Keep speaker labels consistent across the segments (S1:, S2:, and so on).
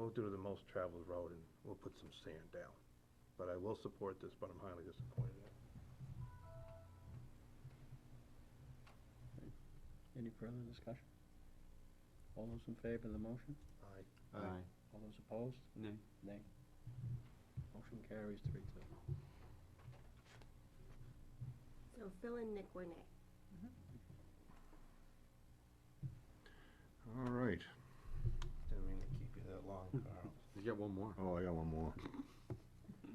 S1: go through the most traveled road and we'll put some sand down. But I will support this, but I'm highly disappointed in it.
S2: Any further discussion? All those in favor of the motion?
S1: Aye.
S3: Aye.
S2: All those opposed?
S3: Nay.
S2: Nay. Motion carries three two.
S4: So Phil and Nick were nay.
S5: All right.
S1: Didn't mean to keep you that long, Carl.
S3: You got one more.
S5: Oh, I got one more.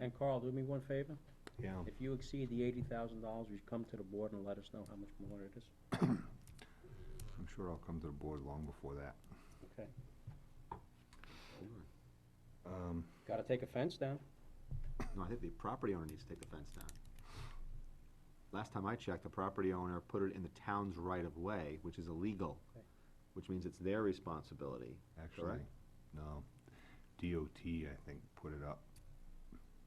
S2: And Carl, do me one favor?
S5: Yeah.
S2: If you exceed the eighty thousand dollars, you come to the board and let us know how much more it is.
S5: I'm sure I'll come to the board long before that.
S2: Okay.
S5: Um,
S2: Gotta take a fence down.
S3: No, I think the property owner needs to take the fence down. Last time I checked, the property owner put it in the town's right-of-way, which is illegal,
S2: Okay.
S3: which means it's their responsibility.
S5: actually, no. DOT, I think, put it up,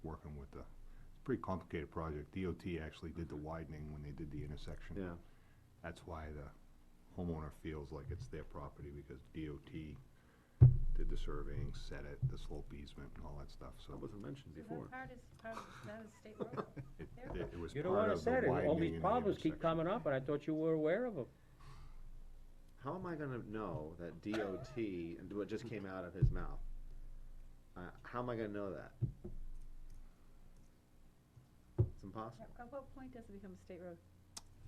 S5: working with the, it's a pretty complicated project. DOT actually did the widening when they did the intersection.
S3: Yeah,
S5: That's why the homeowner feels like it's their property, because DOT did the surveying, set it, the slope easement and all that stuff, so.
S3: that wasn't mentioned before.
S6: That part is part of, that is state road.
S5: It,
S6: There.
S5: it- it was
S2: You
S5: part
S2: don't wanna
S5: of the
S2: say it,
S5: widening
S2: all
S5: and
S2: these
S5: the
S2: problems keep
S5: intersection.
S2: coming up, and I thought you were aware of them.
S3: How am I gonna know that DOT, and what just came out of his mouth? Uh, how am I gonna know that? It's impossible.
S6: At what point does it become a state road,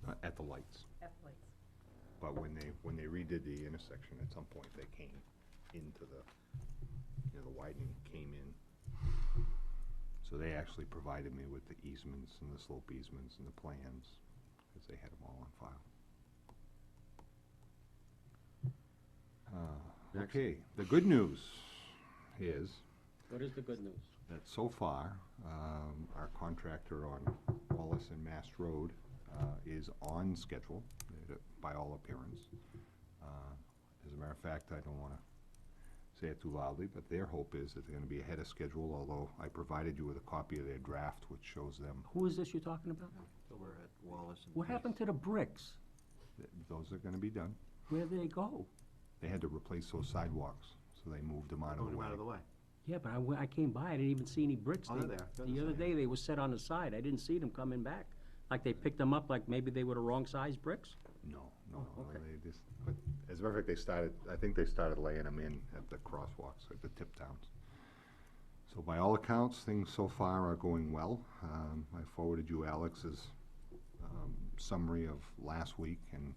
S5: Uh, At the lights,
S6: at the lights?
S5: but when they, when they redid the intersection, at some point, they came into the, you know, the widening came in. So they actually provided me with the easements and the slope easements and the plans, because they had them all on file. Uh,
S3: Next.
S5: Okay, the good news is
S2: What is the good news?
S5: that so far, um, our contractor on Wallace and Mass Road, uh, is on schedule, uh, by all appearance. Uh, As a matter of fact, I don't wanna say it too loudly, but their hope is that they're gonna be ahead of schedule, although I provided you with a copy of their draft, which shows them,
S2: Who is this you're talking about?
S3: We're at Wallace and.
S2: What happened to the bricks?
S5: that those are gonna be done.
S2: Where did they go?
S5: They had to replace those sidewalks, so they moved them out of the way.
S3: out of the way.
S2: Yeah, but I, went- I came by, I didn't even see any bricks.
S3: Oh, they're
S2: They-
S3: there. They're on
S2: The
S3: the
S2: other
S3: side.
S2: day, they were set on the side, I didn't see them coming back. Like they picked them up, like maybe they were the wrong size bricks?
S5: No, no,
S2: Oh,
S5: no,
S2: okay.
S5: they just, but as a matter of fact, they started, I think they started laying them in at the crosswalks, at the tip downs. So by all accounts, things so far are going well. Um, I forwarded you Alex's, um, summary of last week and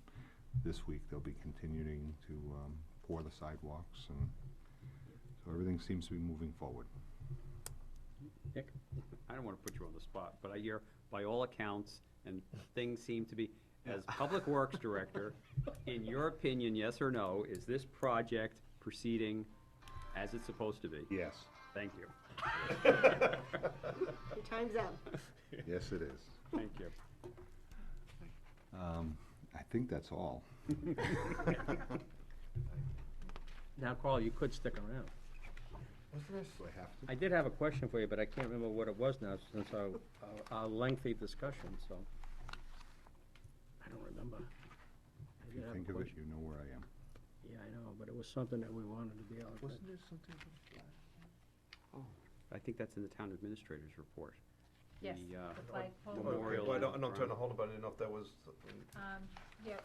S5: this week they'll be continuing to, um, pour the sidewalks and so everything seems to be moving forward.
S2: Nick?
S7: I don't want to put you on the spot, but I hear, by all accounts, and things seem to be, as Public Works Director, in your opinion, yes or no, is this project proceeding as it's supposed to be?
S5: Yes.
S7: Thank you,
S4: Your time's up.
S5: Yes, it is.
S7: thank you.
S5: Um, I think that's all.
S2: Now, Carl, you could stick around.
S5: Do I have to?
S2: I did have a question for you, but I can't remember what it was now since our, our- our lengthy discussion, so. I don't remember. I
S5: If
S2: did
S5: you
S2: have a
S5: think of it,
S2: question.
S5: you know where I am.
S2: Yeah, I know, but it was something that we wanted to be able to.
S3: there something?
S7: I think that's in the town administrator's report.
S6: Yes,
S7: The, uh,
S6: the
S1: Oh,
S6: flagpole.
S7: Okay, Memorial
S1: uh,
S7: well, I don't- I'm not trying to
S1: hold about it enough, that was,
S6: Um, yeah,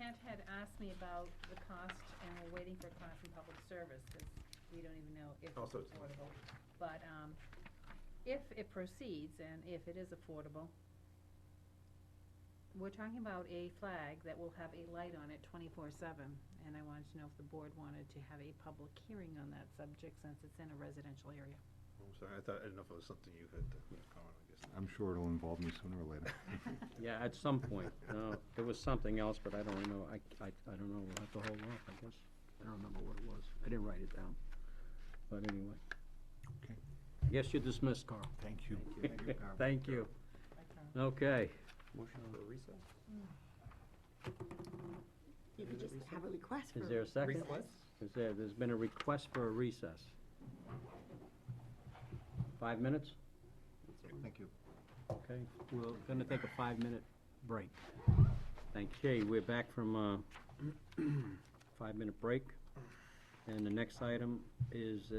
S6: Kent had asked me about the cost, and we're waiting for cost from public service, because we don't even know if
S1: Oh,
S6: it's
S1: so it's not-
S6: affordable. But, um, if it proceeds, and if it is affordable, we're talking about a flag that will have a light on it twenty-four seven, and I wanted to know if the board wanted to have a public hearing on that subject, since it's in a residential area.
S1: I'm sorry, I thought, I didn't know if it was something you had to comment, I guess.
S5: I'm sure it'll involve me sooner or later.
S2: Yeah, at some point. No, it was something else, but I don't know. I, I, I don't know. We'll have to hold off, I guess. I don't remember what it was. I didn't write it down. But anyway.
S5: Okay.
S2: I guess you're dismissed, Carl.
S5: Thank you.
S2: Thank you.
S6: Like, um,
S2: Okay.
S7: Motion for recess?
S4: You could just have a request for.
S2: Is there a second? Is there, there's been a request for a recess. Five minutes?
S3: Thank you.
S2: Okay, we're gonna take a five-minute break. Thank you. We're back from uh, a five-minute break. And the next item is